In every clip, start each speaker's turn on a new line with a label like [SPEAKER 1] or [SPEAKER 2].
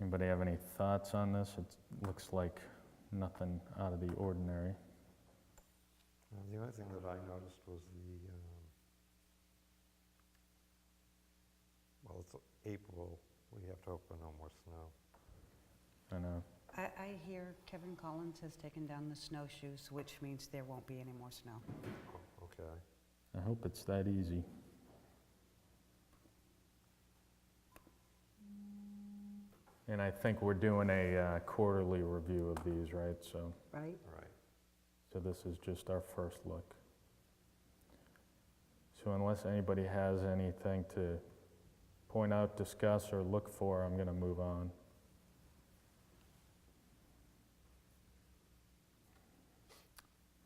[SPEAKER 1] Anybody have any thoughts on this? It looks like nothing out of the ordinary.
[SPEAKER 2] Uh, The only thing that I noticed was the, um, well, it's April, we have to open no more snow.
[SPEAKER 1] I know.
[SPEAKER 3] I, I hear Kevin Collins has taken down the snowshoes, which means there won't be any more snow.
[SPEAKER 2] Oh, Okay.
[SPEAKER 1] I hope it's that easy. And I think we're doing a uh, quarterly review of these, right? So,
[SPEAKER 3] Right.
[SPEAKER 2] All right.
[SPEAKER 1] so this is just our first look. So unless anybody has anything to point out, discuss, or look for, I'm going to move on.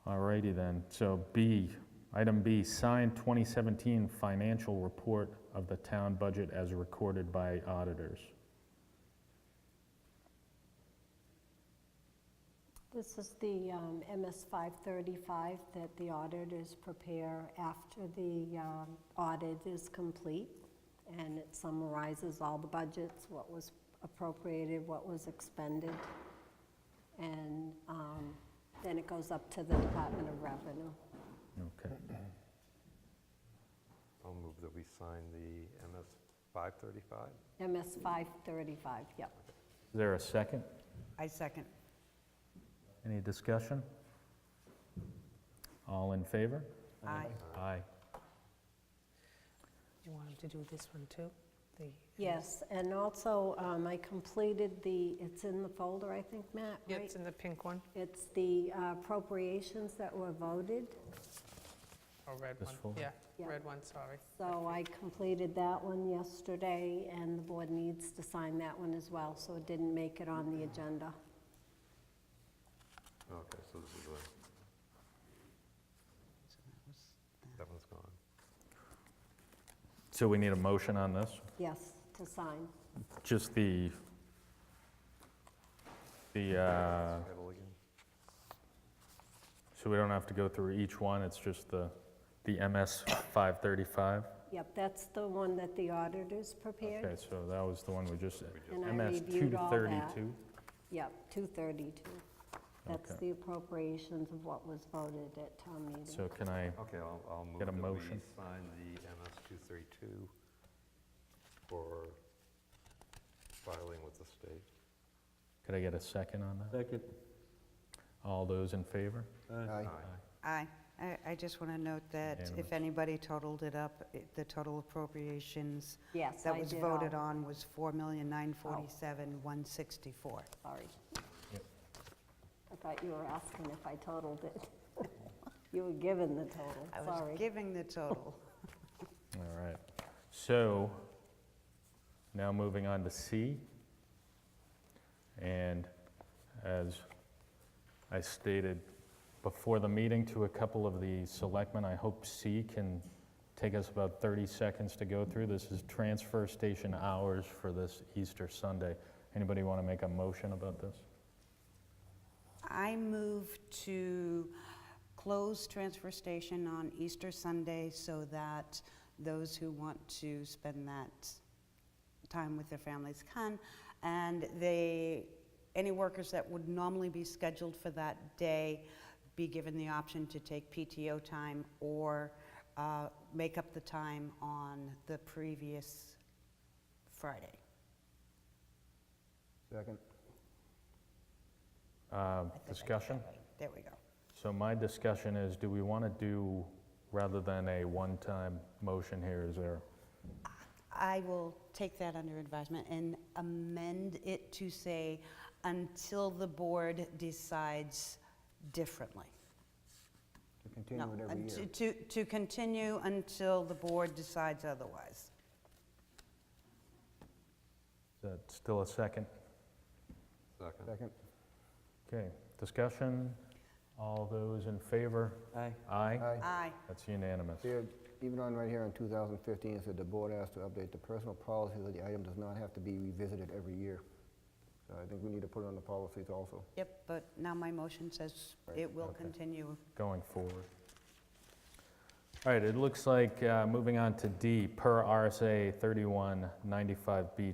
[SPEAKER 1] Alrighty then, so B, item B, signed 2017 financial report of the town budget as recorded by auditors.
[SPEAKER 4] This is the um, MS 535 that the auditors prepare after the um, audit is complete, and it summarizes all the budgets, what was appropriated, what was expended, and um, then it goes up to the Department of Revenue.
[SPEAKER 1] Okay,
[SPEAKER 2] I'll move that we sign the MS 535.
[SPEAKER 4] MS 535, yep.
[SPEAKER 1] is there a second?
[SPEAKER 3] I second.
[SPEAKER 1] Any discussion? All in favor?
[SPEAKER 3] Aye.
[SPEAKER 1] Aye.
[SPEAKER 5] You want him to do this one too? The
[SPEAKER 4] Yes, and also, um, I completed the, it's in the folder, I think, Matt,
[SPEAKER 5] Yeah,
[SPEAKER 4] right?
[SPEAKER 5] It's in the pink one,
[SPEAKER 4] It's the uh, appropriations that were voted.
[SPEAKER 5] or Oh, red
[SPEAKER 1] This
[SPEAKER 5] one?
[SPEAKER 1] folder?
[SPEAKER 5] Yeah,
[SPEAKER 4] Yeah.
[SPEAKER 5] red one, sorry.
[SPEAKER 4] So I completed that one yesterday, and the board needs to sign that one as well, so it didn't make it on the agenda.
[SPEAKER 2] Okay, so this is the,
[SPEAKER 3] So that was-
[SPEAKER 2] that one's gone.
[SPEAKER 1] So we need a motion on this?
[SPEAKER 4] Yes, to sign.
[SPEAKER 1] Just the, the, uh,
[SPEAKER 2] Title again?
[SPEAKER 1] so we don't have to go through each one, it's just the, the MS 535?
[SPEAKER 4] Yep, that's the one that the auditors
[SPEAKER 1] Okay,
[SPEAKER 4] prepared.
[SPEAKER 1] so that was the one we just,
[SPEAKER 4] And I
[SPEAKER 1] MS
[SPEAKER 4] reviewed all that.
[SPEAKER 1] 232?
[SPEAKER 4] Yep, 232. That's
[SPEAKER 1] Okay.
[SPEAKER 4] the appropriations of what was voted at town meeting.
[SPEAKER 1] So can I,
[SPEAKER 2] Okay, I'll, I'll move
[SPEAKER 1] Get a
[SPEAKER 2] that we
[SPEAKER 1] motion.
[SPEAKER 2] sign the MS 232 for filing with the state.
[SPEAKER 1] could I get a second on that?
[SPEAKER 6] Second.
[SPEAKER 1] All those in favor?
[SPEAKER 6] Aye.
[SPEAKER 3] Aye. I, I just want to note that
[SPEAKER 1] Unanimous.
[SPEAKER 3] if anybody totaled it up, it- the total appropriations
[SPEAKER 4] Yes,
[SPEAKER 3] that
[SPEAKER 4] I
[SPEAKER 3] was
[SPEAKER 4] did
[SPEAKER 3] voted
[SPEAKER 4] all.
[SPEAKER 3] on was four million nine forty-seven one sixty-four.
[SPEAKER 4] Sorry.
[SPEAKER 1] Yep.
[SPEAKER 4] I thought you were asking if I totaled it. You were given the total,
[SPEAKER 3] I was
[SPEAKER 4] sorry.
[SPEAKER 3] giving the total.
[SPEAKER 1] All right. So now moving on to C. And as I stated before the meeting to a couple of the selectmen, I hope C can take us about 30 seconds to go through. This is transfer station hours for this Easter Sunday. Anybody want to make a motion about this?
[SPEAKER 3] I move to close transfer station on Easter Sunday so that those who want to spend that time with their families can. And they, any workers that would normally be scheduled for that day be given the option to take PTO time or uh, make up the time on the previous Friday.
[SPEAKER 6] Second.
[SPEAKER 1] Uh,
[SPEAKER 3] I think I did that
[SPEAKER 1] Discussion?
[SPEAKER 3] right. There we go.
[SPEAKER 1] So my discussion is, do we want to do, rather than a one-time motion here, is there
[SPEAKER 3] I will take that under advisement and amend it to say, until the board decides differently.
[SPEAKER 6] To
[SPEAKER 3] No,
[SPEAKER 6] continue it every
[SPEAKER 3] and
[SPEAKER 6] year.
[SPEAKER 3] To, to- to continue until the board decides otherwise.
[SPEAKER 1] Is that still a second?
[SPEAKER 2] Second.
[SPEAKER 6] Second.
[SPEAKER 1] Okay, discussion, all those in favor?
[SPEAKER 6] Aye.
[SPEAKER 1] Aye?
[SPEAKER 6] Aye.
[SPEAKER 3] Aye.
[SPEAKER 1] That's unanimous.
[SPEAKER 6] Here, even on right here in 2015, it said the board asked to update the personal policy that the item does not have to be revisited every year. So I think we need to put it on the policies also.
[SPEAKER 3] Yep, but now my motion says it will continue.
[SPEAKER 1] Going forward. All right, it looks like, uh, moving on to D, per RSA 3195B